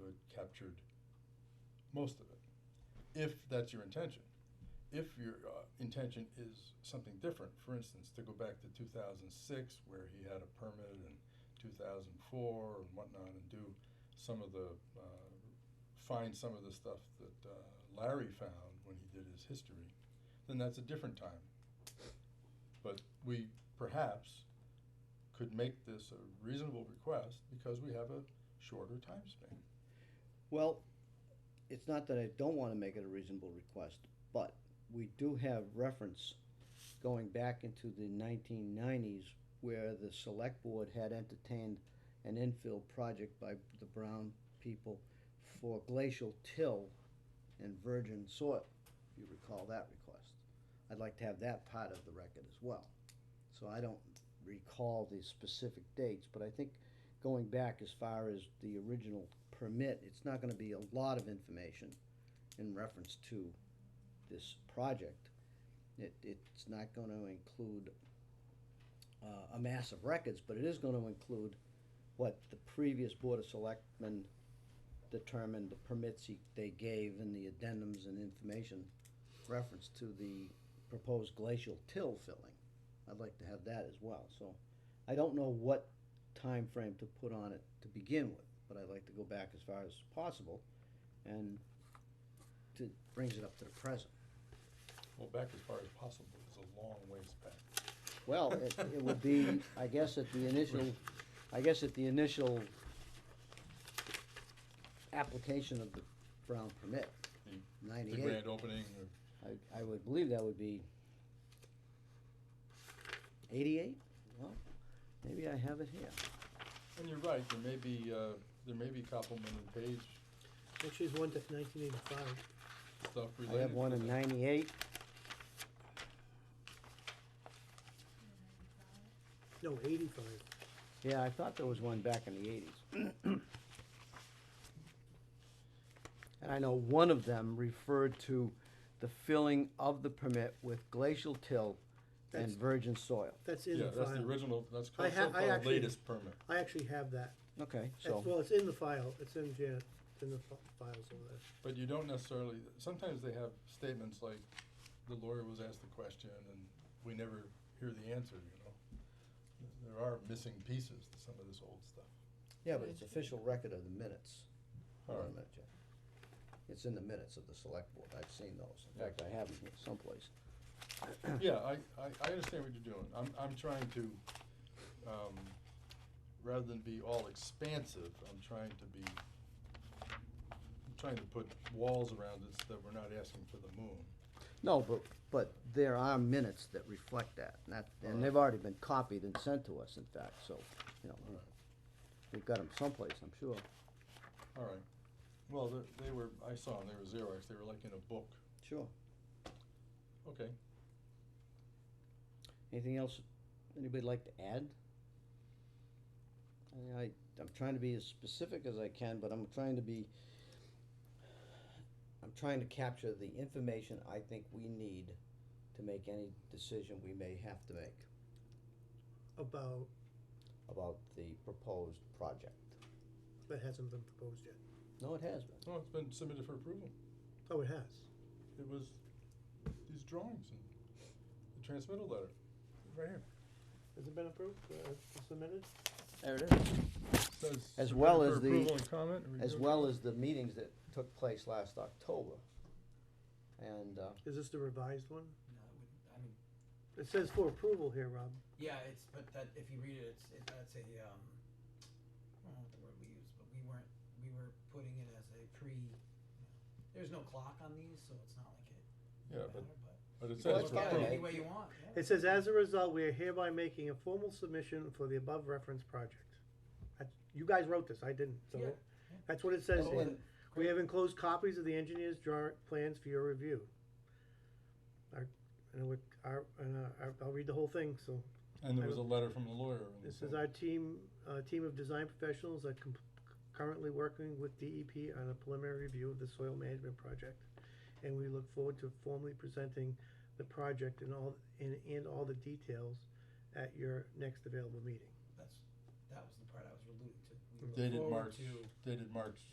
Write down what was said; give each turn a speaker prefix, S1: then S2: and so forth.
S1: would captured most of it, if that's your intention. If your uh, intention is something different, for instance, to go back to 2006 where he had a permit and 2004 and whatnot and do some of the, uh, find some of the stuff that uh, Larry found when he did his history, then that's a different time. But we perhaps could make this a reasonable request because we have a shorter time span.
S2: Well, it's not that I don't wanna make it a reasonable request, but we do have reference going back into the nineteen nineties where the select board had entertained an infill project by the Brown people for glacial till and virgin soil, if you recall that request. I'd like to have that part of the record as well. So I don't recall the specific dates, but I think going back as far as the original permit, it's not gonna be a lot of information in reference to this project. It, it's not gonna include uh, a mass of records, but it is gonna include what the previous Board of Selectmen determined, the permits he, they gave and the addendums and information reference to the proposed glacial till filling. I'd like to have that as well, so I don't know what time frame to put on it to begin with, but I'd like to go back as far as possible and to, brings it up to the present.
S1: Well, back as far as possible is a long ways back.
S2: Well, it, it would be, I guess at the initial, I guess at the initial application of the Brown permit,
S1: The- The
S2: ninety-eight,
S1: grand opening of
S2: I, I would believe that would be eighty-eight? Well, maybe I have it here.
S1: And you're right, there may be, uh, there may be complimentary page
S3: Actually, there's one that's nineteen eighty-five.
S1: stuff related.
S2: I have one
S1: to
S2: in
S1: that.
S2: ninety-eight,
S3: No, eighty-five.
S2: yeah, I thought there was one back in the eighties. And I know one of them referred to the filling of the permit with glacial till and
S3: That's-
S2: virgin soil.
S3: That's in
S1: Yeah,
S3: the
S1: that's the
S3: file.
S1: original, that's
S3: I
S1: called
S3: ha- I
S1: so-called
S3: actually-
S1: latest permit.
S3: I actually have that.
S2: Okay,
S3: That's-
S2: so,
S3: Well, it's in the file. It's in Janet, it's in the fi- files over there.
S1: But you don't necessarily, sometimes they have statements like, the lawyer was asked the question and we never hear the answer, you know? There are missing pieces to some of this old stuff.
S2: yeah, but it's official record of the minutes. Hold on a
S1: Alright.
S2: minute, Jeff. It's in the minutes of the select board, I've seen those, in fact, I have them here someplace.
S1: Yeah, I, I, I understand what you're doing. I'm, I'm trying to, um, rather than be all expansive, I'm trying to be, I'm trying to put walls around it so that we're not asking for the moon.
S2: No, but, but there are minutes that reflect that, and that, and they've already been copied and sent to us, in fact, so, you know, we-
S1: Alright.
S2: we've got them someplace, I'm sure.
S1: All right. Well, they- they were, I saw them, they were Xerox, they were like in a book.
S2: Sure.
S1: Okay.
S2: Anything else anybody like to add? I mean, I, I'm trying to be as specific as I can, but I'm trying to be, I'm trying to capture the information I think we need to make any decision we may have to make
S3: About,
S2: about the proposed project.
S3: that hasn't been proposed yet.
S2: No, it has been.
S1: Oh, it's been submitted for approval.
S3: Oh, it has.
S1: It was these drawings and the transmittal letter. Right here.
S3: Has it been approved, uh, submitted?
S2: There it is.
S1: Says
S2: As
S1: submitted
S2: well
S1: for
S2: as the-
S1: Approval and comment. and
S2: As
S1: review.
S2: well as the meetings that took place last October. And, uh,
S3: Is this the revised one?
S4: No, it wouldn't, I mean,
S3: It says for approval here, Rob.
S4: yeah, it's, but that, if you read it, it's, it, that's a, um, I don't know what the word we use, but we weren't, we were putting it as a pre, you know, there's no clock on these, so it's not like it
S1: Yeah, but,
S4: matter, but.
S1: but it
S2: Well,
S1: says
S2: it's
S1: for
S2: fine.
S4: Yeah,
S1: approval.
S4: any way you want, yeah.
S3: It says, as a result, we are hereby making a formal submission for the above referenced project. That's- You guys wrote this, I didn't, so
S4: Yeah,
S3: that's what it says
S2: Oh,
S3: here.
S2: and-
S3: We have enclosed copies of the engineer's drawing plans for your review. Our, and we, our, and uh, our, I'll read the whole thing, so.
S1: And there was a letter from the lawyer. and
S3: This
S1: so-
S3: is our team, uh, team of design professionals that com- currently working with DEP on a preliminary review of the soil management project. And we look forward to formally presenting the project and all, and, and all the details at your next available meeting.
S4: That's, that was the part I was alluding to. We look
S1: Dated
S4: forward
S1: March,
S4: to-
S1: dated March